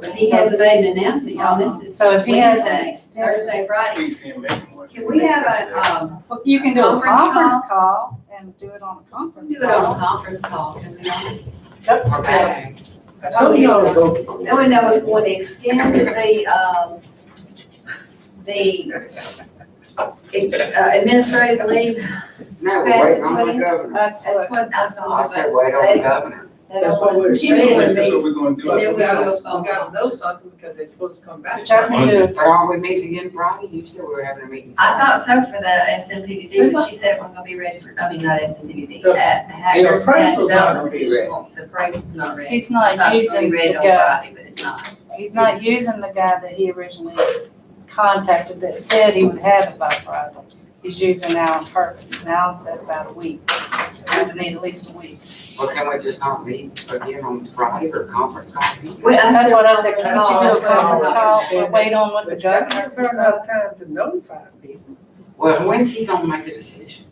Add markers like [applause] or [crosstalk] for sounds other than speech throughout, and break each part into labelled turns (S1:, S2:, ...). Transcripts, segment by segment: S1: But he hasn't made an announcement, y'all, this is
S2: So if he has an
S1: Wednesday,
S2: extended,
S1: Thursday, Friday.
S3: Please send back one.
S1: Can we have a, um,
S2: Well, you can do a
S1: Conference
S2: conference call and do it on a conference
S1: do it on a
S2: call.
S1: conference call, can we not?
S2: Yep.
S1: Okay.
S4: Don't you all go
S1: Then we know if we want to extend the, um, the uh, administrative leave,
S5: No,
S1: Pass
S5: wait
S1: the
S5: on the
S1: twenty.
S5: governor.
S2: That's what,
S1: that's what I saw.
S5: I said, wait on the governor.
S4: That's what we're
S3: So
S4: saying.
S3: we're gonna do
S1: And then we will,
S3: it.
S4: You gotta know something because they're supposed to come back.
S2: which I can do.
S5: But aren't we meeting again Friday? You said we were having a meeting.
S1: I thought so for the SMPDD, but she said we're gonna be ready for, I mean, not SMPDD, uh, Hackers and
S4: appraisal's not gonna
S1: Development
S4: be
S1: Commission. The appraisal's not ready.
S2: He's
S1: I thought
S2: not
S1: it was gonna
S2: using
S1: be
S2: the
S1: ready on
S2: guy,
S1: Friday, but it's not.
S2: he's not using the guy that he originally contacted that said he would have it by Friday. He's using Alan Purvis, and Alan said about a week, so we would need at least a week.
S5: Well, can we just not meet again on Friday or conference call?
S1: Well, I
S2: That's
S1: said
S2: what I said, could you
S1: conference
S2: do a
S1: call.
S2: conference call, we'll wait on what the
S4: But that
S2: governor
S4: gives her enough
S2: decides.
S4: time to notify people.
S5: Well, when's he gonna make a decision?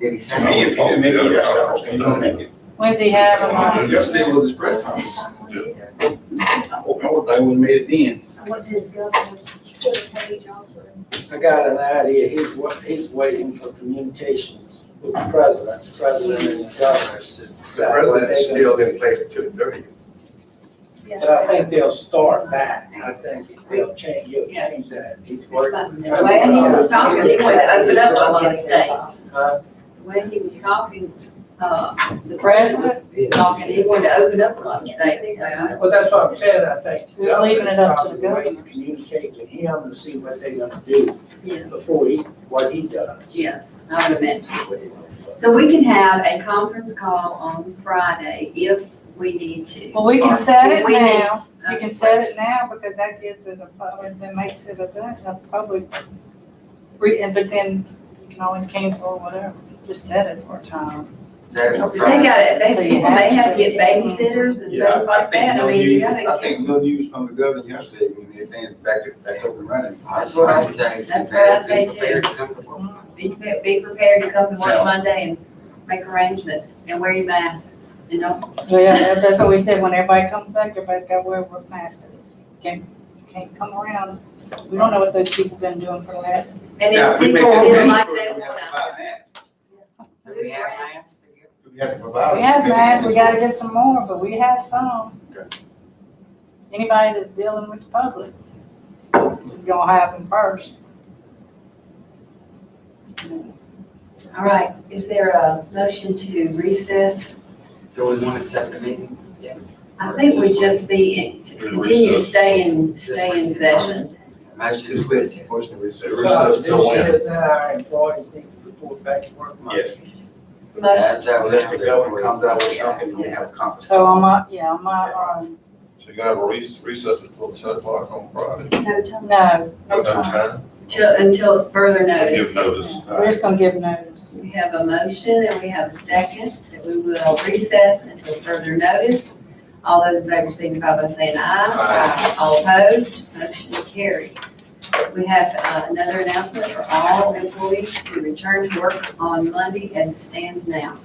S5: Did he say?
S3: To me, if you didn't make it yourself, then you don't make it.
S2: When's he have him on?
S3: Yesterday was his press conference. I hope, I hope they would've made it then.
S6: What is governor's page also?
S7: I got an idea, he's, wa- he's waiting for communications with the president, the president and the governors to
S8: The
S7: decide what
S8: president's
S7: they're
S8: still
S7: gonna.
S8: in place until thirty.
S7: But I think they'll start that, I think he'll change, he'll change that, he's working.
S1: The way he was talking, he wanted to open up a lot of states.
S7: Huh?
S1: The way he was talking, uh, the president was talking, he wanted to open up a lot of states, so.
S7: Well, that's what I'm saying, I think. the
S2: Just leaving it up to the governors.
S7: governor's probably waiting to Communicate with him to see what they're gonna do
S1: Yeah.
S7: before he, what he does.
S1: Yeah, I would imagine. So we can have a conference call on Friday if we need to.
S2: Well, we can set it
S1: We need-
S2: now. You can set it now because that gives it a, public. that makes it a, thing, a public, re- and but then you can always cancel or whatever. Just set it for a time.
S5: That
S1: They
S5: is Friday.
S1: got, they, people may have to get babysitters and
S3: Yeah,
S1: things like
S3: think
S1: that, I
S3: no
S1: mean, you
S3: news-
S1: gotta.
S3: I think no news from the governor yesterday, when everything's back, back up and running.
S5: That's what I say.
S1: That's what I say too.
S5: Prepared to come to work.
S1: Be, pre- be prepared to come to work Monday and make arrangements and wear your mask and don't,
S2: Yeah, [laughs] that- that's what we said. When everybody comes back, everybody's got to wear work masks. Can't, can't come around. We don't know what those people been doing for the last.
S1: and
S3: Now,
S1: if
S3: we make
S1: people
S3: it
S1: feel
S3: mandatory,
S1: like they
S3: we
S1: wanna.
S3: have to buy masks.
S5: Do we have masks to give?
S3: We have to provide.
S2: We have
S3: them.
S2: masks. We got to get some more, but we have some.
S3: Okay.
S2: Anybody that's dealing with the public is gonna have them first.
S1: All right, is there a motion to recess?
S5: Do we wanna set the meeting?
S1: I think we just be, in- to continue to stay in, stay in session.
S5: Motion
S3: Just
S5: is
S3: wait,
S5: recessed.
S3: motion to recess.
S7: So this year, now our employees need to report back to work Monday.
S3: Yes.
S1: Motion,
S5: how we
S3: Unless
S5: have
S3: the
S5: it.
S3: governor comes out with something, we have a conference.
S2: So on my, yeah, on my, um,
S8: So you're gonna have a recess, recess until ten o'clock on Friday.
S1: no time,
S2: no,
S8: No time,
S1: till, until further notice.
S8: give notice.
S2: we're just gonna give notice.
S1: We have a motion and we have a second that we will recess until further notice. All those in favor signify by saying aye.
S3: Aye.
S1: All opposed, motion carries. We have uh, another announcement for all employees to return to work on Monday as it stands now.